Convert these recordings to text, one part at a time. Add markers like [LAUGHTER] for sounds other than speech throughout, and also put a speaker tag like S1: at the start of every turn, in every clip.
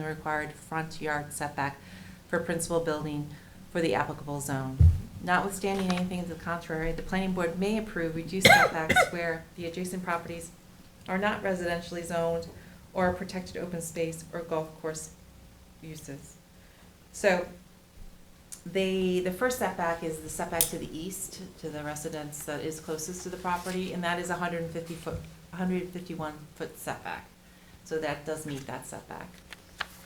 S1: the required front yard setback for principal building for the applicable zone. Notwithstanding anything to the contrary, the planning board may approve reduced setbacks where the adjacent properties are not residentially zoned or are protected open space or golf course uses. So the, the first setback is the setback to the east, to the residence that is closest to the property, and that is hundred and fifty foot, hundred and fifty-one foot setback. So that does meet that setback.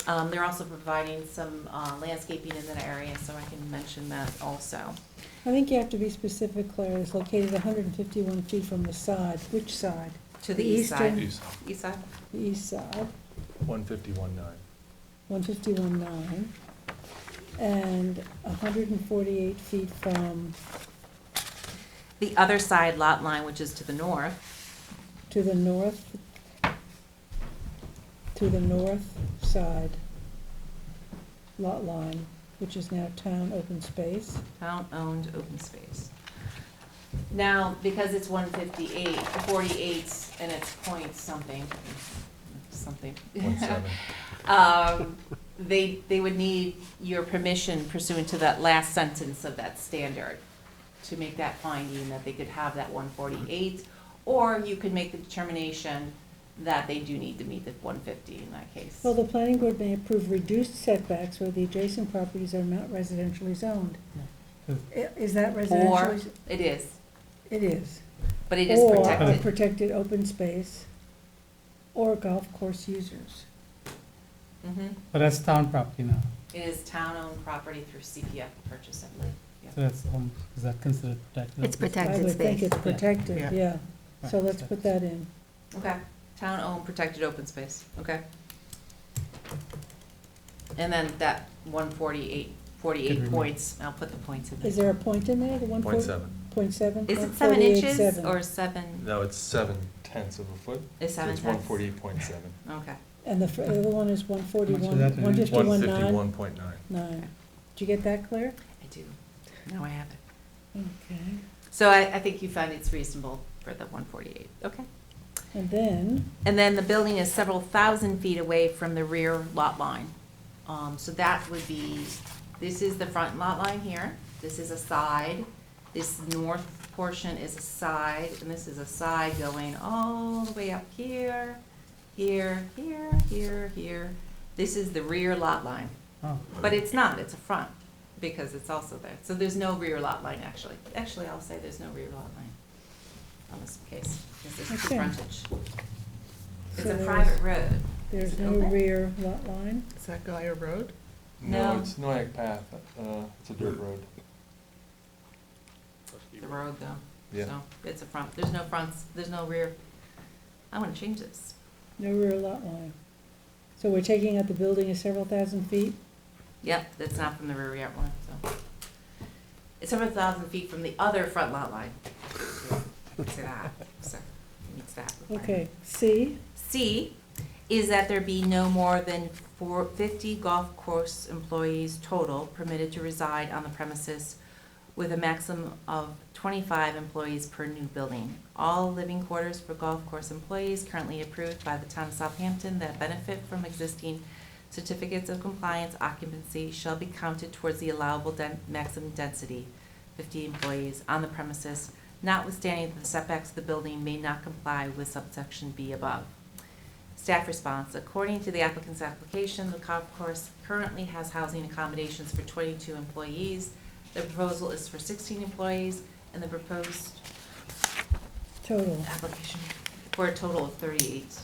S1: Um, they're also providing some, uh, landscaping in that area, so I can mention that also.
S2: I think you have to be specific, Claire, it's located hundred and fifty-one feet from the side, which side?
S1: To the east
S2: Eastern-
S1: side,
S3: East,
S1: east side,
S2: The east side,
S3: one fifty-one nine.
S2: one fifty-one nine, and hundred and forty-eight feet from,
S1: the other side lot line, which is to the north,
S2: to the north, to the north side lot line, which is now town open space.
S1: town-owned open space. Now, because it's 158, 48, and it's point something, something.
S3: One seven.
S1: Um, they, they would need your permission pursuant to that last sentence of that standard to make that finding that they could have that one forty-eight, or you could make the determination that they do need to meet the one fifty in that case.
S2: Well, the planning board may approve reduced setbacks where the adjacent properties are not residentially zoned. I- Is that
S1: Or,
S2: residential?
S1: it is,
S2: It is.
S1: but it is
S2: Or a
S1: protected.
S2: protected open space, or golf course users.
S1: Mhm.
S4: But that's town property now,
S1: It is town-owned property through CPF purchase, I believe.
S4: so that's, um, is that considered protected?
S5: It's protected.
S2: I would think
S5: space.
S2: it's protected,
S4: Yeah.
S2: yeah,
S4: Right,
S2: so let's
S4: so-
S2: put that in.
S1: Okay, town-owned protected open space, okay. And then that one forty-eight,
S4: Could
S1: forty-eight
S4: remove.
S1: points, I'll put the points in there.
S2: Is there a point in there, the one
S3: Point
S2: point,
S3: seven.
S2: point seven?
S1: Is it
S2: Point
S1: seven
S2: 48,
S1: inches
S2: seven.
S1: or seven,
S3: No, it's seven tenths of a foot.
S1: is
S3: so
S1: seven
S3: It's one
S1: tenths?
S3: forty-eight point seven.
S1: Okay,
S2: And the fr- the other one is one forty-one,
S4: that in?
S2: one fifty-one
S3: One
S2: nine,
S3: fifty-one point nine.
S2: nine. Did you get that clear?
S1: I do, now I have it.
S2: Okay.
S1: So I, I think you found it's reasonable for the one forty-eight, okay.
S2: And then,
S1: And then the building is several thousand feet away from the rear lot line. Um, so that would be, this is the front lot line here, this is a side, this north portion is a side, and this is a side going all the way up here, here, here, here, here. This is the rear lot line.
S4: Oh,
S1: But it's not, it's a front, because it's also there. So there's no rear lot line, actually. Actually, I'll say there's no rear lot line on this case, because there's two
S2: Okay.
S1: frontage. It's a
S2: So there's-
S1: private road.
S2: there's
S1: Is it
S2: no
S1: open?
S2: rear lot line,
S6: Is that Guyer Road?
S1: No.
S3: No, it's Noack Path, uh, it's a dirt road.
S1: The road, though.
S3: Yeah.
S1: So it's a front, there's no fronts, there's no rear. I want to change this.
S2: no rear lot line. So we're taking out the building is several thousand feet?
S1: Yep, that's not from the rear yard line, so. It's several thousand feet from the other front lot line. It's that, so, it's that. requirement.
S2: Okay, C,
S1: C is that there be no more than four, fifty golf course employees total permitted to reside on the premises with a maximum of twenty-five employees per new building. All living quarters for golf course employees currently approved by the town of Southampton that benefit from existing certificates of compliance occupancy shall be counted towards the allowable den- maximum density, fifty employees on the premises notwithstanding that the setbacks of the building may not comply with subsection B above. Staff response, according to the applicant's application, the golf course currently has housing accommodations for twenty-two employees. The proposal is for sixteen employees, and the proposed
S2: total,
S1: application for a total of thirty-eight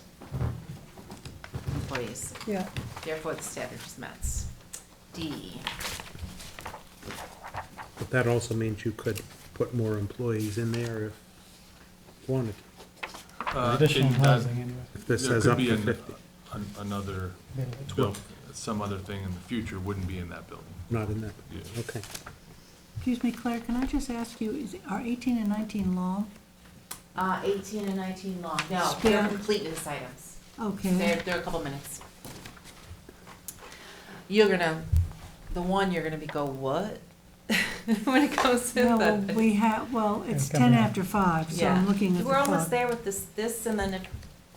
S1: employees.
S2: yeah.
S1: Therefore, the standard is met. D,
S7: But that also means you could put more employees in there if wanted,
S3: Uh,
S4: Additional
S3: it- uh,
S4: housing anyway.
S7: if this
S3: there
S7: says
S3: could
S7: up
S3: be
S7: to
S3: an-
S7: fifty,
S3: an- Another,
S4: Building.
S3: well, some other thing in the future wouldn't be in that building.
S7: not in that,
S3: Yeah.
S7: okay.
S2: Excuse me, Claire, can I just ask you, is, are eighteen and nineteen long?
S1: uh, eighteen and nineteen long, no, they're
S2: Yeah.
S1: completeness items. They're,
S2: Okay.
S1: they're a couple minutes. You're gonna, the one you're gonna be go, what? [LAUGHS] When it comes to
S8: No, well,
S1: the.
S8: we have, well, it's
S4: come
S8: ten
S4: back.
S8: after five, so
S1: Yeah.
S8: I'm looking at the
S1: We're
S8: clock.
S1: almost there with this, this, and then if,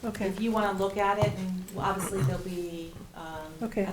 S2: Okay,
S1: if you wanna look at it, and well, obviously there'll be, um, I
S2: Okay.